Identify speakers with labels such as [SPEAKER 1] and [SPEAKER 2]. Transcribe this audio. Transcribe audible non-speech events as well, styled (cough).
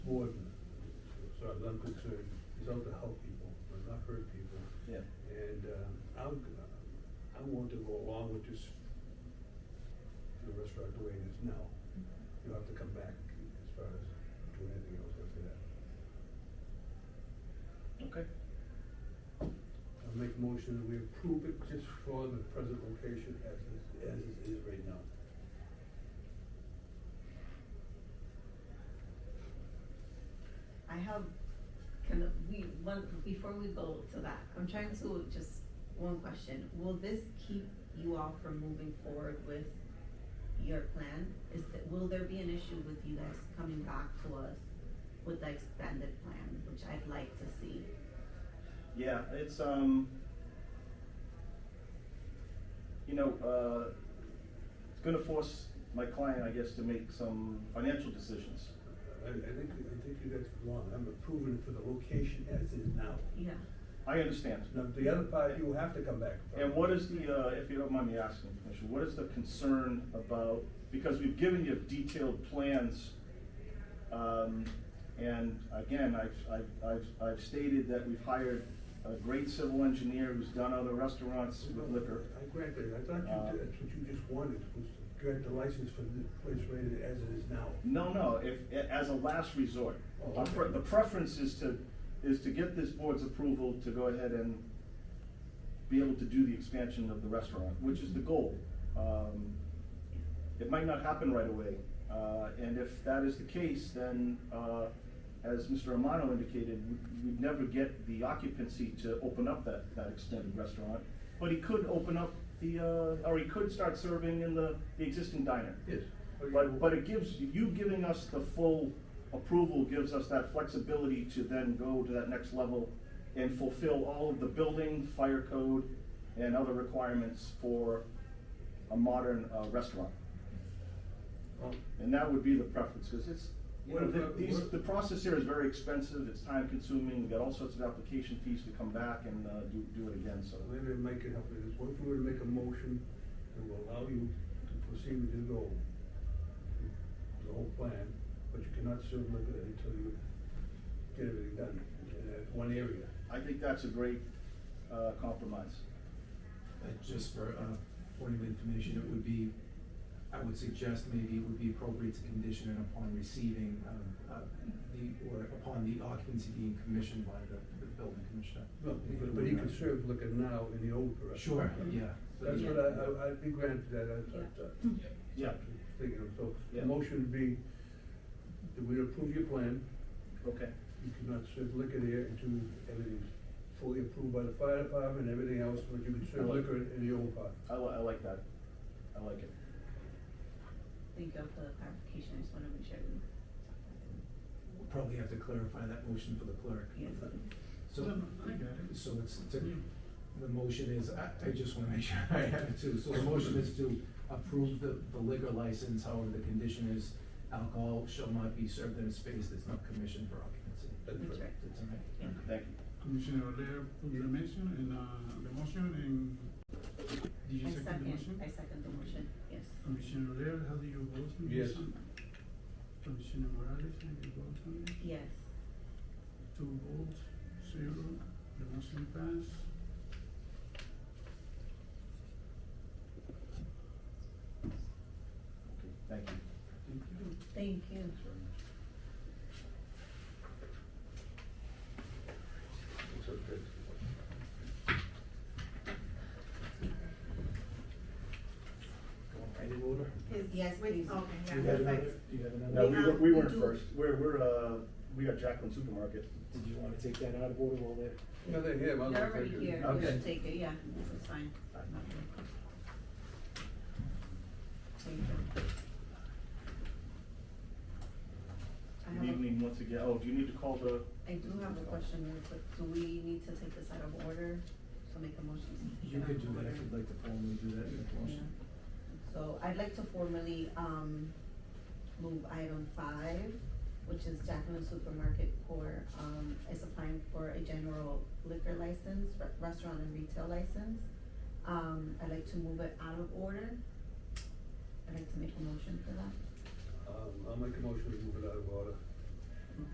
[SPEAKER 1] concern is out to help people, but not hurt people.
[SPEAKER 2] Yeah.
[SPEAKER 1] And, um, I'm, g- I want to go along with this, the restaurant the way it is now. You'll have to come back as far as doing anything else after that.
[SPEAKER 2] Okay.
[SPEAKER 1] I'll make motion that we approve it just for the present location as it, as it is right now.
[SPEAKER 3] I have, can we, one, before we go to that, I'm trying to just, one question, will this keep you all from moving forward with your plan? Is that, will there be an issue with you guys coming back to us with the expanded plan, which I'd like to see?
[SPEAKER 2] Yeah, it's, um, you know, uh, it's gonna force my client, I guess, to make some financial decisions.
[SPEAKER 1] I, I think, I think you guys are wrong, I'm approving it for the location as is now.
[SPEAKER 3] Yeah,
[SPEAKER 2] I understand.
[SPEAKER 1] Now, the other part, you have to come back.
[SPEAKER 2] And what is the, uh, if you don't mind me asking, Commissioner, what is the concern about, because we've given you detailed plans, um, and again, I've, I've, I've, I've stated that we've hired a great civil engineer who's done other restaurants with liquor. Uh,
[SPEAKER 1] I grant that, I thought you, did- that's what you just wanted, was to grant the license for the place rated as it is now.
[SPEAKER 2] No, no, if, as a last resort.
[SPEAKER 1] Oh,
[SPEAKER 2] Our pre-
[SPEAKER 1] okay.
[SPEAKER 2] The preference is to, is to get this board's approval to go ahead and be able to do the expansion of the restaurant, which is the goal. Um, It might not happen right away, uh, and if that is the case, then, uh, as Mr. Amano indicated, we- we'd never get the occupancy to open up that, that extended restaurant. But he could open up the, uh, or he could start serving in the, the existing diner.
[SPEAKER 1] Yes.
[SPEAKER 2] But, but it gives, you giving us the full approval gives us that flexibility to then go to that next level and fulfill all of the building, fire code, and other requirements for a modern uh, restaurant.
[SPEAKER 1] Um,
[SPEAKER 2] And that would be the preference, because it's, you
[SPEAKER 1] What
[SPEAKER 2] know, the,
[SPEAKER 1] about-
[SPEAKER 2] these,
[SPEAKER 1] what-
[SPEAKER 2] the process here is very expensive, it's time consuming, we got all sorts of application fees to come back and, uh, do, do it again, so.
[SPEAKER 1] Maybe I can help with this, what if we were to make a motion that will allow you to proceed with your goal? The whole plan, but you cannot serve liquor until you get everything done, in that one area.
[SPEAKER 2] I think that's a great, uh, compromise.
[SPEAKER 4] Uh, Just for a point of information, it would be, I would suggest maybe it would be appropriate to condition it upon receiving, um, uh, the, or upon the occupancy being commissioned by the the building commissioner.
[SPEAKER 1] No, but- but he can serve liquor now in the old restaurant.
[SPEAKER 4] Sure, yeah.
[SPEAKER 1] That's what I, I, I'd be granted that, I, uh, I,
[SPEAKER 3] Yeah.
[SPEAKER 2] Yeah.
[SPEAKER 1] thinking of, so, the
[SPEAKER 2] Yeah.
[SPEAKER 1] motion would be, that we approve your plan,
[SPEAKER 2] Okay,
[SPEAKER 1] you cannot serve liquor there until everything's fully approved by the fire department, and everything else, but you can serve liquor in in the old part.
[SPEAKER 2] I li- I like that, I like it.
[SPEAKER 3] thank you for the clarification, I just wanna make sure.
[SPEAKER 4] We'll probably have to clarify that motion for the clerk.
[SPEAKER 3] Yes,
[SPEAKER 4] So,
[SPEAKER 5] No, no, I got it.
[SPEAKER 4] so it's, to- the motion is, I, I just wanna make (laughs) sure I have it too, so the motion is to approve the, the liquor license, however, the condition is alcohol shall not be served in a space that's not commissioned for occupancy.
[SPEAKER 2] Uh,
[SPEAKER 3] that's right.
[SPEAKER 4] That's all right?
[SPEAKER 3] Yeah.
[SPEAKER 2] Thank you.
[SPEAKER 5] Commissioner O'Dea approved the mention and, uh, the motion and
[SPEAKER 3] I
[SPEAKER 5] did you second the motion?
[SPEAKER 3] I second the motion, yes.
[SPEAKER 5] Commissioner O'Dea, how do you vote on this?
[SPEAKER 1] Yes.
[SPEAKER 5] one? Commissioner Morales, how do you vote on it?
[SPEAKER 3] Yes,
[SPEAKER 5] Two votes, zero, the motion passed.
[SPEAKER 2] Okay, thank you.
[SPEAKER 5] Thank you.
[SPEAKER 3] thank you.
[SPEAKER 1] It's okay.
[SPEAKER 3] Yes, wait, okay,
[SPEAKER 4] Do you have another, do you have
[SPEAKER 2] No, we
[SPEAKER 4] another,
[SPEAKER 3] have-
[SPEAKER 2] were, we
[SPEAKER 3] we
[SPEAKER 2] weren't
[SPEAKER 3] do-
[SPEAKER 2] first, we're, we're, uh, we got Jacqueline Supermarket.
[SPEAKER 4] did you wanna take that out of order while there?
[SPEAKER 1] No, they're here, well,
[SPEAKER 3] They're
[SPEAKER 1] they're
[SPEAKER 3] already here, we
[SPEAKER 2] Okay.
[SPEAKER 3] should take it, yeah, it's fine. Thank you. I
[SPEAKER 2] Good
[SPEAKER 3] have, a-
[SPEAKER 2] evening once again, oh, do you need to call the,
[SPEAKER 3] I do have a question, really quick. do we need to take this out of order, so make a motion? to take
[SPEAKER 4] You
[SPEAKER 3] it out
[SPEAKER 4] could
[SPEAKER 3] of
[SPEAKER 4] do that if
[SPEAKER 3] order?
[SPEAKER 4] you'd like to formally do that in the motion.
[SPEAKER 3] Yeah. So I'd like to formally, um, move item five, which is Jacqueline Supermarket for, um, is applying for a general liquor license, re- restaurant and retail license. Um, I'd like to move it out of order. I'd like to make a motion for that.
[SPEAKER 1] Um, I'll make a motion to move it out of order.